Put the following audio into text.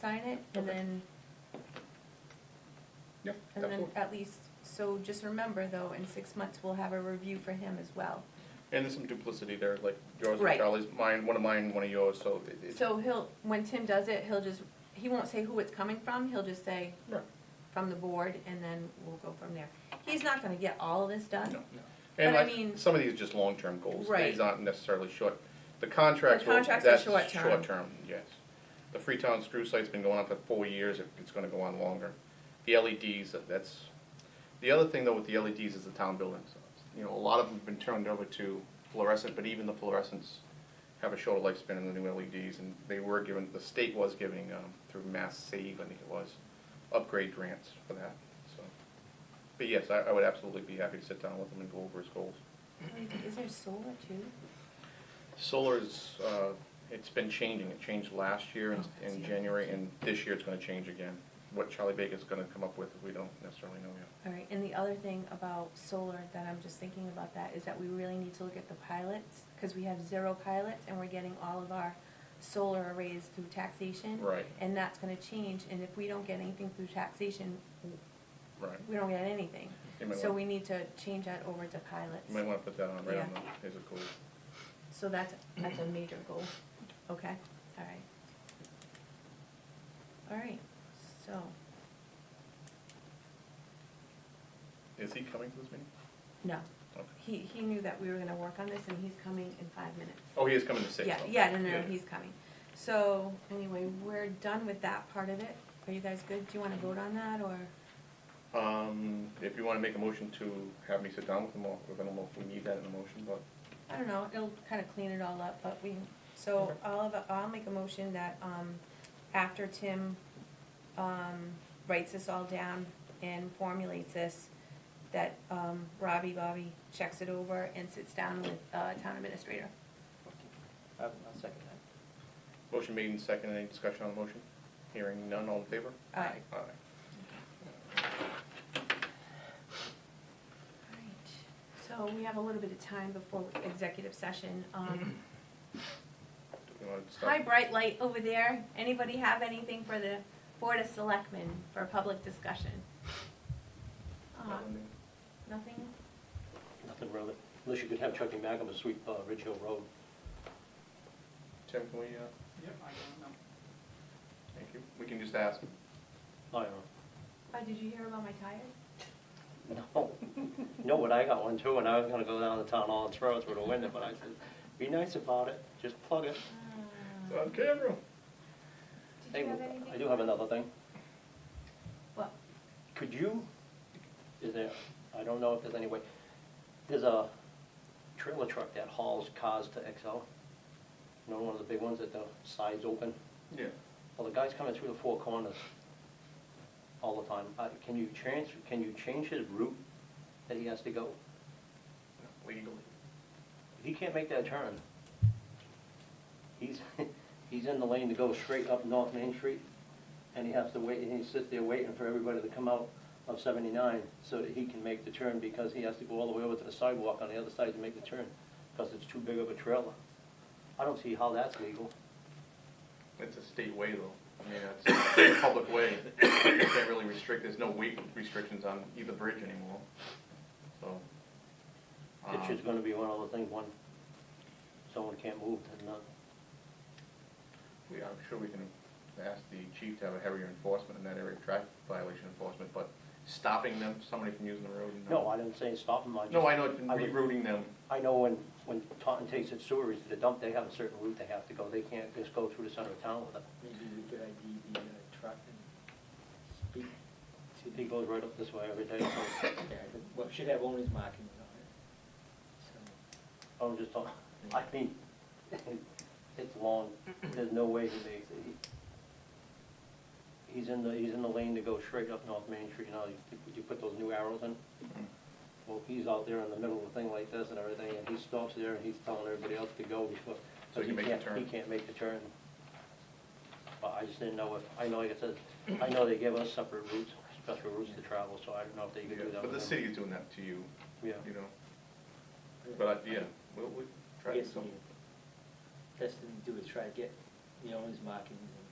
sign it, and Okay. then, Yep, and then absolutely. at least, so just remember though, in six months, we'll have a review for him as well. And there's some duplicity there, like yours and Right. Charlie's, mine, one of mine, one of yours, so it- it's. So he'll, when Tim does it, he'll just, he won't say who it's coming from, he'll just say Right. from the board, and then we'll go from there. He's not gonna get all of this done. No. And But I like, mean- some of these are just long-term goals, Right. these aren't necessarily short, the contracts, The will- contracts are that's short-term. short-term, yes. The Freetown screw site's been going on for four years, it- it's gonna go on longer. The LEDs, that's, the other thing though with the LEDs is the town buildings. You know, a lot of them have been turned over to fluorescent, but even the fluorescents have a shorter lifespan than the new LEDs, and they were given, the state was giving, um, through Mass Save, I think it was, upgrade grants for that, so. But yes, I, I would absolutely be happy to sit down with him and go over his goals. Is there solar too? Solar is, uh, it's been changing, it changed last year in, Oh, in January, and this year it's gonna change again. What Charlie Baker's gonna come up with, we don't necessarily know yet. All right, and the other thing about solar that I'm just thinking about that is that we really need to look at the pilots, because we have zero pilots and we're getting all of our solar arrays through taxation. Right. And that's gonna change, and if we don't get anything through taxation, Right, we don't get anything. You might So want- we need to change that over to pilots. you might wanna put that on right on Yeah. the, as a goal. So that's, that's a major goal, okay, all right. All right, so, Is he coming to this meeting? no, Okay. he, he knew that we were gonna work on this and he's coming in five minutes. Oh, he is coming to six, Yeah, okay. yeah, no, no, no, he's coming. So, anyway, we're done with that part of it. Are you guys good? Do you wanna vote on that, or? Um, if you wanna make a motion to have me sit down with him, or, I don't know if we need that in a motion, but I don't know, it'll kinda clean it all up, but we, so I'll, have a- I'll make a motion that, um, after Tim, um, writes this all down and formulates this, that, um, Robbie Bobby checks it over and sits down with, uh, town administrator. I'll I'll second that. motion made and seconded, any discussion on the motion? Hearing none, all in favor? Aye. Aye. Alright, so we have a little bit of time before executive session, um, Do we wanna start? Hi, bright light over there. Anybody have anything for the Board of Selectmen for a public discussion? Uh, Nothing? Nothing really, unless you could have Chuckie Magama sweep uh, Ridge Hill Road. Tim, can we, uh, Yep, I don't know. thank you, we can just ask him. I uh, don't Oh, did you hear about my tires? know. No, no, but I got one too, and I was gonna go down to town hall and throw it through the window, but I said, be nice about it, just plug it. It's on camera. Uh, Did Ah. Hey, you have anything? I do have another thing. What? Could you, is there, I don't know if there's any way, there's a trailer truck that hauls cars to XL. You know, one of the big ones that the sides open? Yeah. Well, the guy's coming through the four corners all the time. Uh, Can you change, can you change his route that he has to go? Legally. He can't make that turn. He's, he's in the lane to go straight up North Main Street, and he has to wait, and he sits there waiting for everybody to come out of seventy-nine so that he can make the turn, because he has to go all the way over to the sidewalk on the other side to make the turn, because it's too big of a trailer. I don't see how that's legal. It's a state way though, I mean, it's a public way, you can't really restrict, there's no weight restrictions on either bridge anymore, so. It's um, just gonna be one of the things, one, someone can't move, and not. We, I'm sure we can ask the chief to have a heavier enforcement in that area, traffic violation enforcement, but stopping them, somebody from using the road? No, I didn't say stop them, I just. No, I know, it's been I would- rerouting them, I know when, when Taunton takes its sewerage to the dump, they have a certain route they have to go, they can't just go through the center of town with it. Maybe we could ID the uh, truck and speak to He the, goes right up this way every day, so, yeah, but- well, it should have owner's markings on it. I'm just talking, I mean, it's long, there's no way he makes it. He- He's in the, he's in the lane to go straight up North Main Street, you know, you, you put those new arrows in. Well, he's out there in the middle of the thing like this and everything, and he stops there and he's telling everybody else to go before. So he makes the can't- turn. He can't make the turn. But I just didn't know if, I know, like I said, I know they give us separate routes, special routes to travel, so I don't know if they Yeah, could do but that. the with them. city is doing that to you, Yeah, you know, but, I- yeah, we'll, we'll I try to guess do something. the best thing to do is try to get the owner's markings and